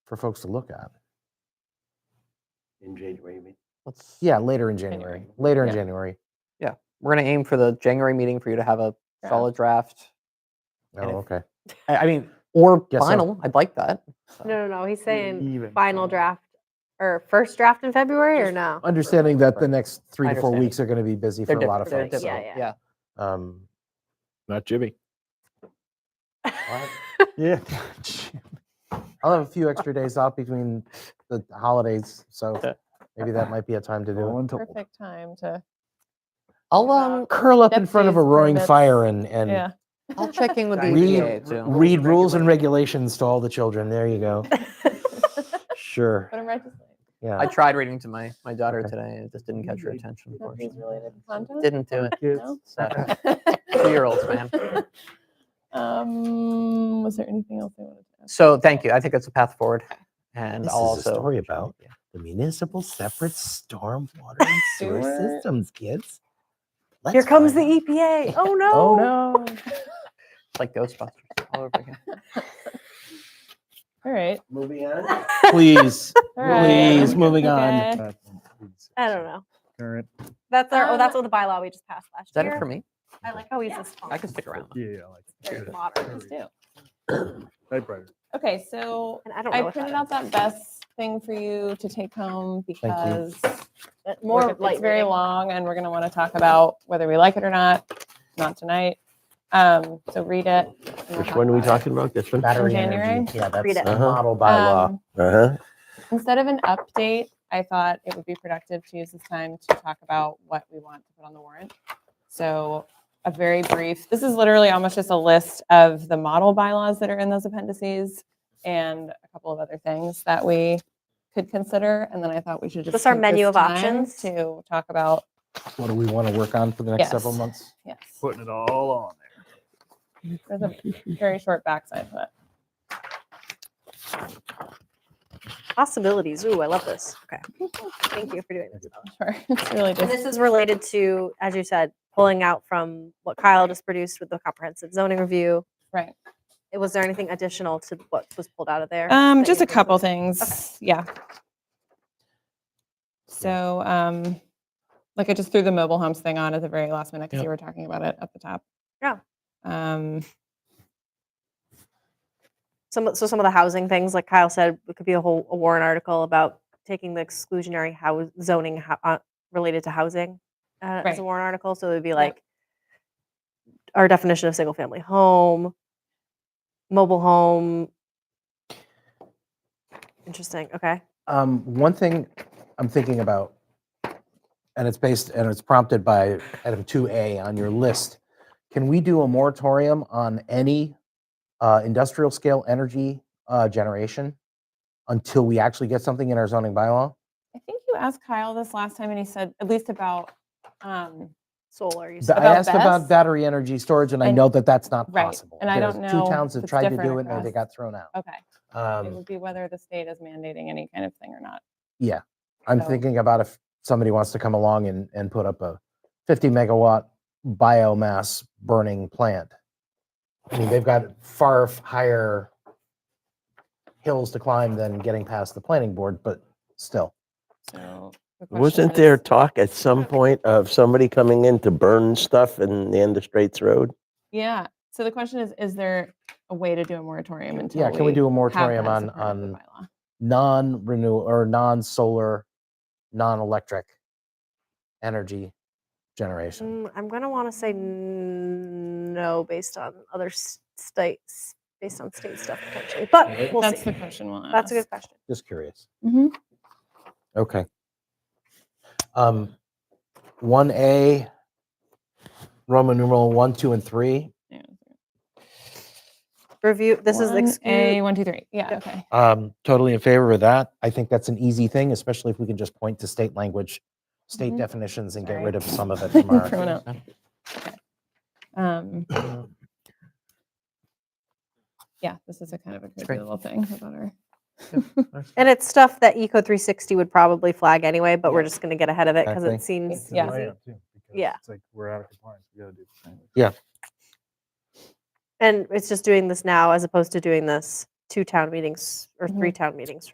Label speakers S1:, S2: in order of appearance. S1: for folks to look at.
S2: in January, you mean?
S3: Let's,
S1: Yeah, later in January,
S3: January.
S1: later in
S3: Yeah.
S1: January.
S3: We're going to aim for the January meeting for you to have a
S1: Yeah.
S3: solid draft. And
S1: Oh,
S3: if-
S1: okay.
S3: I, I mean, or
S1: Yes, so-
S3: final. I'd like that. So,
S4: No, no, no. He's saying
S2: Even
S4: Mm, final
S2: so.
S4: draft or first draft in February or no?
S1: Understanding that the
S3: Right.
S1: next three
S3: I
S1: to four
S3: understand.
S1: weeks are going to be busy for a
S3: they're
S1: lot of
S3: different-
S1: folks.
S3: they're
S4: Yeah,
S1: so,
S3: different,
S4: yeah.
S1: Um,
S5: Not Jimmy.
S2: Yeah.
S1: I'll have a few extra days off between the holidays, so
S3: Yeah.
S1: maybe that might be a time to do it.
S6: Perfect time to,
S3: I'll um,
S1: Curl up in front of a
S6: Deputies,
S1: roaring fire and,
S6: yeah.
S1: and
S3: I'll check in with the
S1: Read-
S3: EPA too.
S1: read rules and regulations to all the children. There you go. Sure.
S6: Put them right to sleep.
S1: Yeah.
S3: I tried reading to my my daughter
S1: Okay.
S3: today. and It just didn't catch her attention.
S6: Nothing's
S3: Unfortunately,
S6: related to content?
S3: didn't do it.
S6: No?
S3: So, Two-year-olds, man.
S6: Um, was there anything else I wanted to ask?
S3: So thank you. I think that's a path forward. And
S7: This
S3: I'll
S7: is a
S3: also
S7: story about the municipal separate stormwater and sewer
S6: Sewer.
S7: systems, kids.
S4: Here
S7: Let's
S4: comes the
S7: find out.
S4: EPA. Oh no.
S3: Oh no! It's like Ghostbusters all over again.
S6: All right.
S2: Moving on.
S1: Please,
S6: All right.
S1: please, moving on.
S6: Okay.
S4: I don't know.
S2: Current.
S4: That's our. Oh,
S6: Um,
S4: that's what the bylaw we just passed last
S3: Is that
S4: year.
S3: it for me?
S4: I like how he's just.
S3: I can stick around.
S2: Yeah, I like it.
S4: Very modern.
S6: Let's do.
S2: Typewriter.
S6: Okay, so
S4: And I don't know.
S6: I
S4: what that
S6: printed
S4: is.
S6: out that best thing for you to take home because
S4: But
S6: we're-
S4: more light.
S6: it's very
S4: reading.
S6: long and we're going to want to talk about whether we like it or not, not tonight. Um, so read it. and we'll
S5: Which
S6: talk
S5: one are we
S6: about it.
S5: talking about? This one?
S1: Battery
S6: January?
S1: energy. Yeah, that's
S4: Read it.
S1: the model by law.
S6: Um,
S5: Uh-huh.
S6: Instead of an update, I thought it would be productive to use this time to talk about what we want to put on the warrant. So a very brief, this is literally almost just a list of the model bylaws that are in those appendices and a couple of other things that we could consider. And then I thought we should just.
S4: This our
S6: take
S4: menu of
S6: time
S4: options?
S6: To talk about,
S1: What do we want to work on for the next several
S6: Yes.
S1: months?
S6: yes,
S2: Putting it all on there.
S6: there's a very short backside to it.
S4: possibilities. Ooh, I love this. Okay. Thank you for doing this. Bella.
S6: Sure, it's really
S4: And
S6: just.
S4: this is related to, as you said, pulling out from what Kyle just produced with the comprehensive zoning review.
S6: Right.
S4: It- Was there anything additional to what was pulled out of there?
S6: Um,
S4: that
S6: just
S4: you
S6: a couple
S4: included?
S6: things, yeah. So, um, like I just threw the mobile homes thing on at the very last minute because you were talking about it at the top.
S4: Yeah.
S6: Um,
S4: Some, so some of the housing things, like Kyle said, it could be a whole a Warren article about taking the exclusionary house zoning ho- uh, related to housing uh, as
S6: Right.
S4: a Warren article. So it would be
S6: Yep.
S4: like our definition of single family home, mobile home. Interesting. Okay.
S1: Um, one thing I'm thinking about, and it's based and it's prompted by item two A on your list. Can we do a moratorium on any uh, industrial scale energy uh, generation until we actually get something in our zoning bylaw?
S6: I think you asked Kyle this last time and he said, at least about, um,
S4: Solar. You
S1: Th-
S4: said.
S1: I
S6: About
S1: asked about
S6: BESS?
S1: battery energy storage, and I
S6: And-
S1: know that that's not
S6: right,
S1: possible.
S6: and I
S1: There's
S6: don't know
S1: Two towns
S6: if
S1: have
S6: it's
S1: tried to
S6: different
S1: do it, and they
S6: across-
S1: got thrown out.
S6: okay. It
S1: Um,
S6: would be whether the state is mandating any kind of thing or not.
S1: I'm
S6: so-
S1: thinking about if somebody wants to come along and, and put up a 50 megawatt biomass burning plant. I mean, they've got far f- higher hills to climb than getting past the planning board, but still.
S6: So. the question
S5: Wasn't there
S6: is-
S5: talk at some point of somebody coming in to burn stuff in the end of Straits Road?
S6: Yeah. So the question is, is there a way to do a moratorium until?
S1: Yeah, can we do a
S6: have
S1: moratorium
S6: that as
S1: on,
S6: a part of the
S1: on
S6: bylaw?
S1: non-renew or non-solar, non-electric energy generation?
S4: Mm, I'm gonna want to say n- no, based on other s- states, based on state stuff potentially, but we'll
S6: That's
S4: see.
S6: the question we'll ask.
S4: That's a good question.
S1: Just curious.
S6: Mhm.
S1: Okay. Um, one A, Roman numeral one, two, and three.
S6: Yeah.
S4: Review. This is
S6: One, A,
S4: excuse.
S6: one, two, three. Yeah,
S4: Yep.
S6: okay.
S1: Um, totally in favor of that. I think that's an easy thing, especially if we can just point to state language, state
S6: Mhm.
S1: definitions and get
S6: Sorry.
S1: rid of some of it from
S6: Thrown
S1: our.
S6: out. Okay. Um, Yeah, this is a kind of a
S3: great.
S6: crazy little thing about our,
S4: And it's stuff that Eco 360 would probably flag anyway, but we're just gonna get ahead of it because
S1: Exactly.
S4: it seems
S6: Yeah.
S4: easy. Yeah.
S2: Yeah. It's like we're out of compliance. We gotta do. this anyway.
S4: And it's just doing this now as opposed to doing this two town meetings or three town meetings